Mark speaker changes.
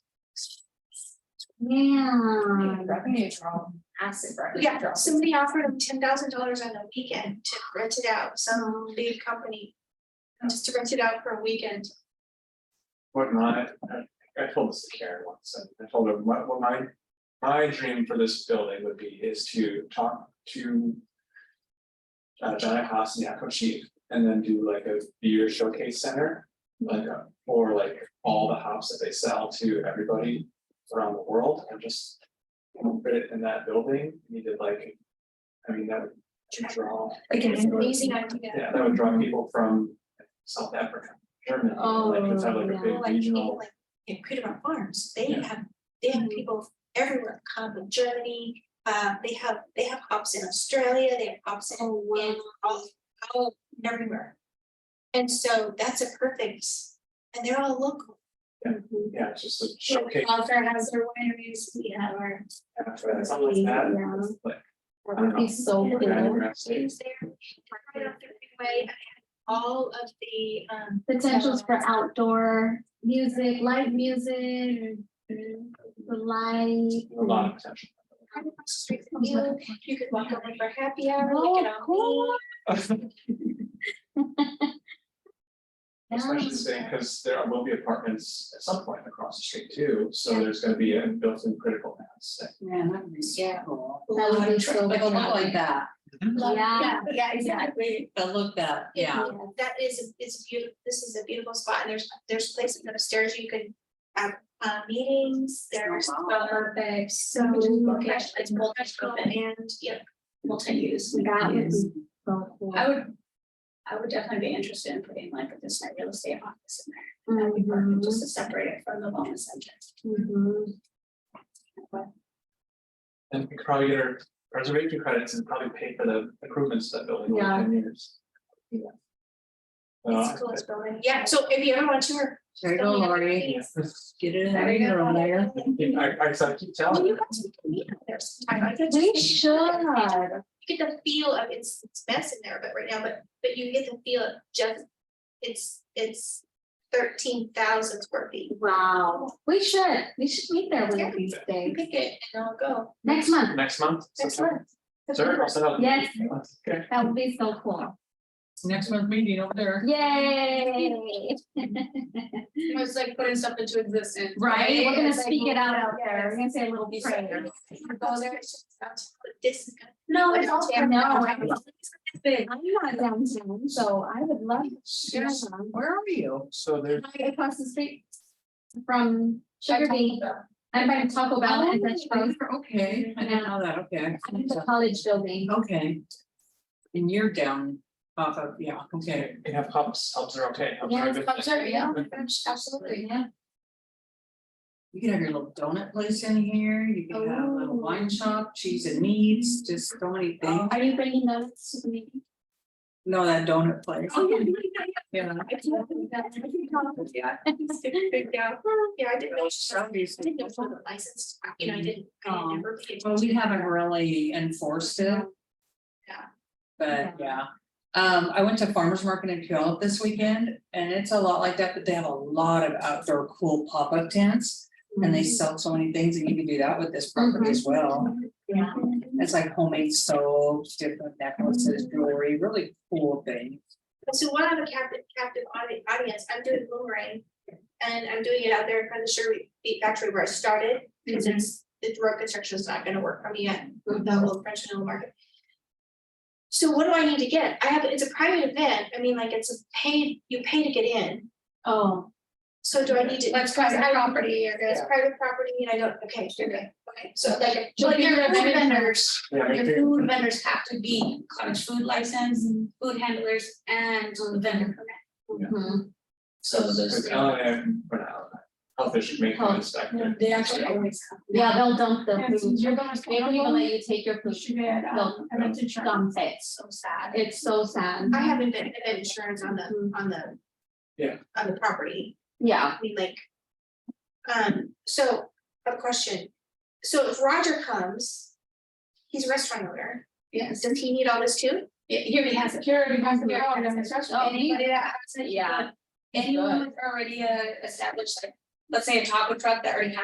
Speaker 1: Yeah.
Speaker 2: Revenue draw, massive revenue
Speaker 3: Yeah,
Speaker 2: draw.
Speaker 3: somebody offered him ten thousand dollars on a weekend to rent it out, some big company. Just to rent it out for a weekend.
Speaker 4: What my, I I told this to Karen once, and I told her, what what my, my dream for this building would be is to talk to. Uh, Johnny Haas and Yakko Chief, and then do like a beer showcase center, like a, for like all the hops that they sell to everybody around the world, and just. you know, Put it in that building, you did like, I mean, that would draw.
Speaker 3: Like an amazing idea.
Speaker 4: Yeah, that would draw people from South Africa, Germany, like, it's have like a
Speaker 1: Oh,
Speaker 4: big
Speaker 3: Like, in
Speaker 4: regional.
Speaker 3: like, in Creedmoor Farms, they
Speaker 4: Yeah.
Speaker 3: have, they have people everywhere, come from Germany. Uh, they have, they have hops in Australia, they have hops in, in all, all, everywhere. And so that's a perfect, and they're all local.
Speaker 4: Yeah, it's just a showcase,
Speaker 1: Alter has their wineries, we have our.
Speaker 4: after something like that,
Speaker 1: Yeah.
Speaker 4: like,
Speaker 1: That
Speaker 4: don't
Speaker 1: would be
Speaker 4: know.
Speaker 1: so
Speaker 4: Yeah,
Speaker 1: cool.
Speaker 4: we're actually-
Speaker 3: Is there, right off the freeway, all of the, um,
Speaker 1: Potentials for outdoor music, live music, and the light.
Speaker 4: A lot of potential.
Speaker 3: kind of street view, you could walk over for happy hour,
Speaker 1: Oh,
Speaker 3: look at all
Speaker 1: cool.
Speaker 4: Especially saying, because there will be apartments at some point across the street too, so there's gonna be a built-in critical mass. that-
Speaker 5: Yeah, that would be so
Speaker 2: Yeah.
Speaker 5: cool.
Speaker 3: the.
Speaker 1: That would be so
Speaker 5: Like a
Speaker 1: cool.
Speaker 5: look like that,
Speaker 1: Yeah.
Speaker 3: Yeah, exactly. Um,
Speaker 5: a look that, yeah,
Speaker 3: That is, it's beautiful, this is a beautiful spot, and there's, there's places upstairs you could have, uh, meetings, there's.
Speaker 5: Oh, wow.
Speaker 3: uh,
Speaker 1: Perfect, so.
Speaker 3: multi- It's multi-scope and, yeah, multi-use.
Speaker 1: That would be
Speaker 2: Yes.
Speaker 1: so cool.
Speaker 2: I would, I would definitely be interested in putting like a business real estate office in there,
Speaker 1: Mhm,
Speaker 2: just to separate it from the wellness center.
Speaker 1: mhm.
Speaker 4: And we could probably get our reservation credits and probably pay for the improvements to that building in
Speaker 1: Yeah.
Speaker 4: ten years. Yeah. Oh, Uh,
Speaker 3: It's cool, it's building, yeah, so if you ever want to. or-
Speaker 5: there you go, Lori, get it in
Speaker 2: There you
Speaker 5: there,
Speaker 2: go.
Speaker 5: Leah.
Speaker 4: I, I, 'cause I keep
Speaker 3: Well,
Speaker 4: telling
Speaker 3: you
Speaker 4: you,
Speaker 3: guys we can meet up there sometime, I could
Speaker 1: We
Speaker 3: just-
Speaker 1: should.
Speaker 3: you get the feel of it's it's mess in there, but right now, but but you get the feel of just, it's it's thirteen thousand square feet.
Speaker 1: Wow, we should, we should meet there one
Speaker 3: Yeah.
Speaker 1: of these
Speaker 3: You
Speaker 1: days,
Speaker 3: pick it and I'll go.
Speaker 1: next month,
Speaker 4: next month.
Speaker 3: Next
Speaker 4: sometime.
Speaker 3: month.
Speaker 4: Sure, I'll send out.
Speaker 1: Yes.
Speaker 4: Okay.
Speaker 1: that would be so cool,
Speaker 5: Next month meeting over there.
Speaker 1: yay.
Speaker 2: It was like putting stuff into existence.
Speaker 1: Right, we're gonna speak it out out there, we're gonna say a little prayer.
Speaker 3: Go there, it's just out to the distance.
Speaker 1: No,
Speaker 3: it's all-
Speaker 1: No, I'm big, I'm not downtown, so I would love.
Speaker 5: Yeah.
Speaker 1: to
Speaker 5: Where are you?
Speaker 4: So there's
Speaker 1: Right across the street from Sugar Oh. Bean, I'm by Taco Bell and Dutch Bros,
Speaker 5: Oh, Okay, I didn't know that, okay.
Speaker 1: I'm in the college building.
Speaker 5: Okay. And you're down off of, yeah,
Speaker 4: Okay,
Speaker 5: okay.
Speaker 4: you have hubs, hubs are okay. hubs are
Speaker 1: Yeah,
Speaker 4: a good
Speaker 1: it's
Speaker 4: thing.
Speaker 1: are, yeah,
Speaker 3: Absolutely.
Speaker 1: yeah.
Speaker 5: You can have your little donut place in here, you can have a little
Speaker 1: Oh.
Speaker 5: wine shop, cheese and meats, just so many things.
Speaker 1: Are you bringing those to the meeting?
Speaker 5: No, that donut place.
Speaker 1: Oh,
Speaker 5: Yeah.
Speaker 1: Yeah.
Speaker 3: Yeah, yeah, I didn't know. she- I
Speaker 5: That'd be so
Speaker 3: didn't know
Speaker 5: cool.
Speaker 3: for the license, you know, I didn't, I
Speaker 5: Oh.
Speaker 3: never. paid
Speaker 5: Well, we
Speaker 3: attention.
Speaker 5: haven't really enforced it.
Speaker 3: Yeah.
Speaker 5: But yeah, um, I went to farmer's market in Puyallup this weekend and it's a lot like that, but they have a lot of outdoor cool pop-up tents. And they sell so many things and you can do that with this property as
Speaker 3: Mm-hmm.
Speaker 5: well.
Speaker 1: Yeah.
Speaker 3: Um,
Speaker 5: It's like homemade soaps, different necklaces, jewelry, really cool things.
Speaker 3: So while I'm a captive, captive audi- audience, I'm doing boomerang. And I'm doing it out there in front of the Sherwood Beet Factory where I started, because it's, the road construction is not gonna work for me yet, with the whole French Vanilla market. So what do I need to get? I have, it's a private event, I mean, like, it's a paid, you pay to get in,
Speaker 1: Oh,
Speaker 3: so do I need to?
Speaker 2: That's private
Speaker 3: I-
Speaker 2: property or
Speaker 3: It's
Speaker 2: that's-
Speaker 3: private property, and I don't, okay, sure, okay, okay, so like.
Speaker 2: Well,
Speaker 3: your
Speaker 2: your
Speaker 3: food
Speaker 2: food
Speaker 3: vendors.
Speaker 4: Yeah,
Speaker 2: Your
Speaker 4: make it-
Speaker 2: food vendors have to be cottage food license, food handlers and Mm-hmm. vendor permit.
Speaker 1: mhm.
Speaker 2: So those.
Speaker 4: Because Alan and I, for now, uh, health issues make them inspected.
Speaker 2: They actually always come.
Speaker 1: yeah, they'll dump the
Speaker 2: Yeah,
Speaker 1: food,
Speaker 2: since you're
Speaker 1: maybe
Speaker 2: going to
Speaker 1: they'll
Speaker 2: Colombia,
Speaker 1: let you take your food,
Speaker 2: you should get, um,
Speaker 1: they'll
Speaker 2: I went to China.
Speaker 1: dump it,
Speaker 3: So sad.
Speaker 1: it's so sad.
Speaker 3: I have event, event insurance on the, on the.
Speaker 4: Yeah.
Speaker 3: On the property,
Speaker 1: Yeah,
Speaker 3: I mean, like. Um, so, a question, so if Roger comes. He's a restaurant owner,
Speaker 2: Yes,
Speaker 3: does he need all this too?
Speaker 2: Yeah, he already has it. He already
Speaker 1: has it.
Speaker 2: He already has it.
Speaker 1: Oh, he-
Speaker 2: Anybody that has it.
Speaker 1: Yeah.
Speaker 2: uh, Anyone with already a established, like, let's say a taco truck that already has